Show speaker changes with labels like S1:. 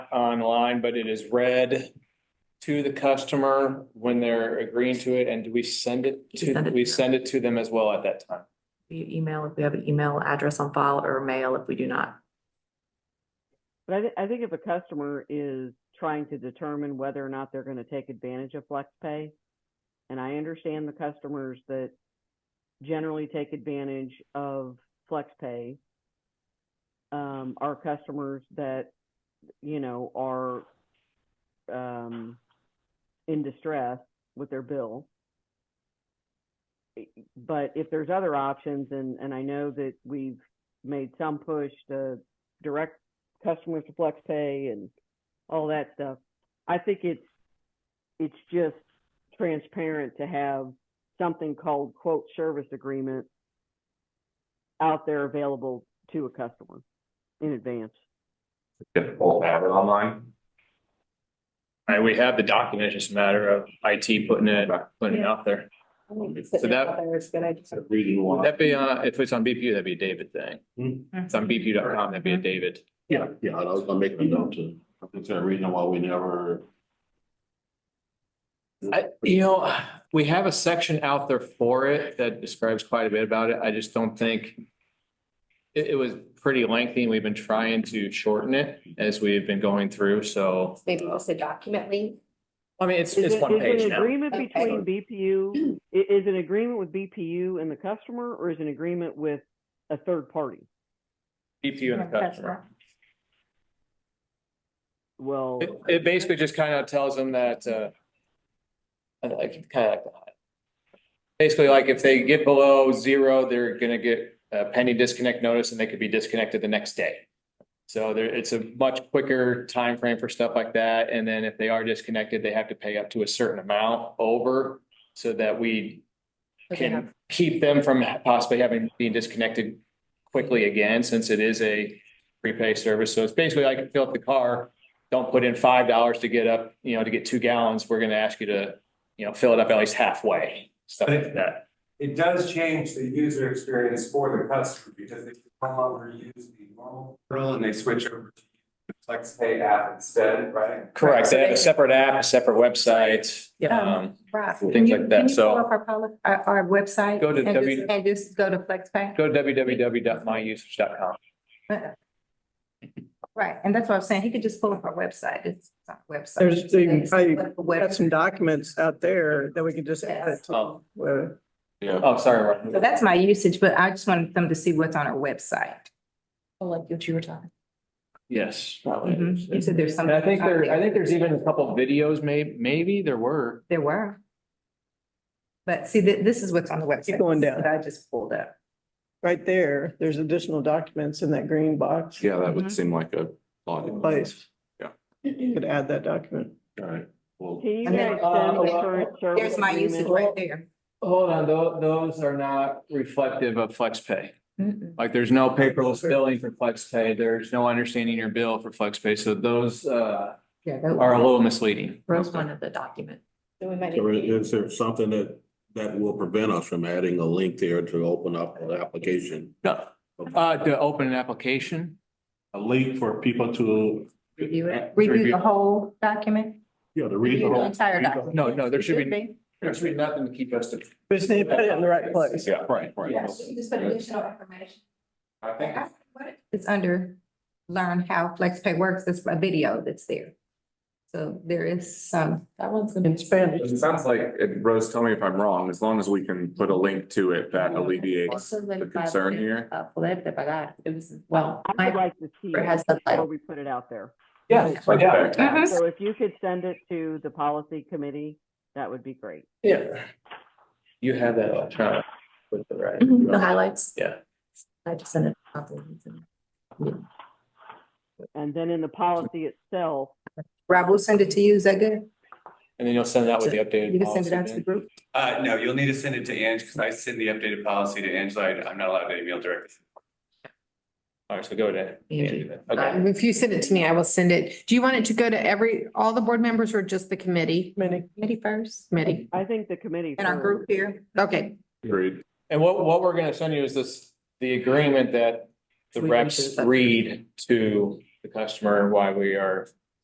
S1: online, but it is read to the customer when they're agreeing to it, and do we send it to,
S2: Send it.
S1: we send it to them as well at that time?
S2: via e-, email, if we have an email address on file or mail if we do not.
S3: But I, thi- I think if a customer is trying to determine whether or not they're going to take advantage of FlexPay, and I understand the customers that generally take advantage of FlexPay um, are customers that, you know, are um, in distress with their bill. But if there's other options, and, and I know that we've made some push to direct customers to flex pay and all that stuff. I think it's it's just transparent to have something called quote service agreement out there available to a customer in advance.
S4: difficult to have it online.
S1: And we have the document, it's just a matter of IT putting it, putting it out there. So that-
S4: So Reading
S1: Would
S4: one.
S1: that be, uh, if it's on BPU, that'd be a David thing.
S4: Hmm.
S1: If It's on BPU.com, that'd be a David.
S4: Yeah, yeah, I was gonna make a note to, I think there's a reason why we never.
S1: I, you know, we have a section out there for it that describes quite a bit about it. I just don't think it, it was pretty lengthy and we've been trying to shorten it as we've been going through. So,
S5: Maybe we'll say document link.
S1: I mean, it's,
S3: Is
S1: it's
S3: it-
S1: one
S3: is
S1: page
S3: an
S1: now.
S3: agreement
S5: Okay.
S3: between BPU i- is an agreement with BPU and the customer, or is an agreement with a third party?
S1: BPU and the customer.
S3: Well,
S1: It, it basically just kind of tells them that, uh, I like, kind of like that. Basically, like if they get below zero, they're gonna get a penny disconnect notice and they could be disconnected the next day. So there, it's a much quicker time frame for stuff like that. And then if they are disconnected, they have to pay up to a certain amount over so that we can keep them from possibly having being disconnected quickly again, since it is a prepay service. So it's basically like fill up the car, don't put in five dollars to get up, you know, to get two gallons, we're gonna ask you to, you know, fill it up at least halfway, stuff like that.
S6: It does change the user experience for the customer because they no longer use the normal portal and they switch over to the FlexPay app instead, right?
S1: Correct, they have a
S5: Right.
S1: separate app, a separate website,
S2: Yeah.
S1: um,
S5: Right.
S1: Things
S5: Can you-
S1: like that,
S5: can you
S1: so-
S5: pull up Our, poli- our, our website.
S1: Go to
S5: and
S1: W-
S5: just- And just go to FlexPay.
S1: go to www.myusage.com.
S5: Right, and that's what I'm saying. He could just pull up our website. It's it's our website.
S7: There's the-
S5: It's
S7: I
S5: what the
S7: got some
S5: website-
S7: documents out there that we can just add
S5: Yes.
S7: to.
S1: Oh.
S7: Well,
S4: Yeah.
S1: Oh, sorry,
S5: So
S1: Martin.
S5: that's my usage, but I just wanted them to see what's on our website. Oh, like what you were talking.
S1: Yes.
S5: Mhm. You
S1: And
S5: said there's some.
S1: I think there, I think there's even a couple of videos, may, maybe there were.
S5: There were. But see, thi- this is what's on the website.
S7: Keep going down.
S5: That I just pulled up.
S7: Right there, there's additional documents in that green box.
S4: Yeah,
S5: that would
S4: seem like a logical
S7: Place.
S4: Yeah.
S7: You could add that document.
S4: Alright, well,
S3: can you
S5: And then,
S3: guys
S1: uh,
S3: send the
S1: well,
S3: current service
S5: There's my usage
S3: agreement?
S5: right there.
S1: Hold on, tho- those are not reflective of FlexPay.
S5: Mm-mm.
S1: Like there's no paperless billing for FlexPay, there's no understanding your bill for FlexPay, so those, uh,
S5: Yeah. that-
S1: are a little misleading.
S2: Rose wanted the document.
S4: so is there something that, that will prevent us from adding a link there to open up the application?
S1: No, uh, to open an application,
S4: A link for people to.
S5: Review it,
S1: Review.
S5: review the whole document,
S4: Yeah, to read
S5: review
S4: the
S5: the
S4: whole.
S5: entire
S4: read the-
S5: document.
S1: no, no, there
S5: It
S1: should be- there's really nothing to keep us to.
S7: But just need to put it in the right place.
S4: Yeah, right, right.
S5: Yes, you just put additional information.
S6: I think it's
S5: It's under learn how FlexPay works, it's a video that's there. So there is some. That one's gonna
S7: In Spanish.
S8: It sounds like, and Rose, tell me if I'm wrong, as long as we can put a link to it that alleviates the concern here.
S2: uh, Poder de pagar, it was, well,
S3: I would
S2: my,
S3: like to see
S2: it has
S3: it before
S2: subtitles.
S3: we put it out there.
S1: Yeah, yeah,
S5: Mhm.
S3: So if you could send it to the policy committee, that would be great.
S1: yeah. You have that electronic with the right.
S5: Mm-hmm.
S2: the highlights.
S1: Yeah.
S2: I just sent it. out.
S3: And then in the policy itself,
S5: Rob, we'll send it to you, is that good?
S1: And then you'll send that with the updated.
S5: You can send it out to
S1: policy
S5: the group?
S6: Uh, no, you'll need to send it to Ange, because I send the updated policy to Angela. I- I'm not allowed to email directly.
S1: then. All right, so go to.
S2: Angie.
S1: Angie. Okay,
S9: If you send it to me, I will send it. Do you want it to go to every, all the board members or just the committee?
S7: Many.
S9: Committee first. Committee.
S3: I think the committee.
S5: In our
S3: first.
S5: group here?
S9: Okay,
S8: Agreed.
S1: and what, what we're gonna send you is this, the agreement that the
S2: We
S1: reps
S2: read it.
S1: read to the customer why we are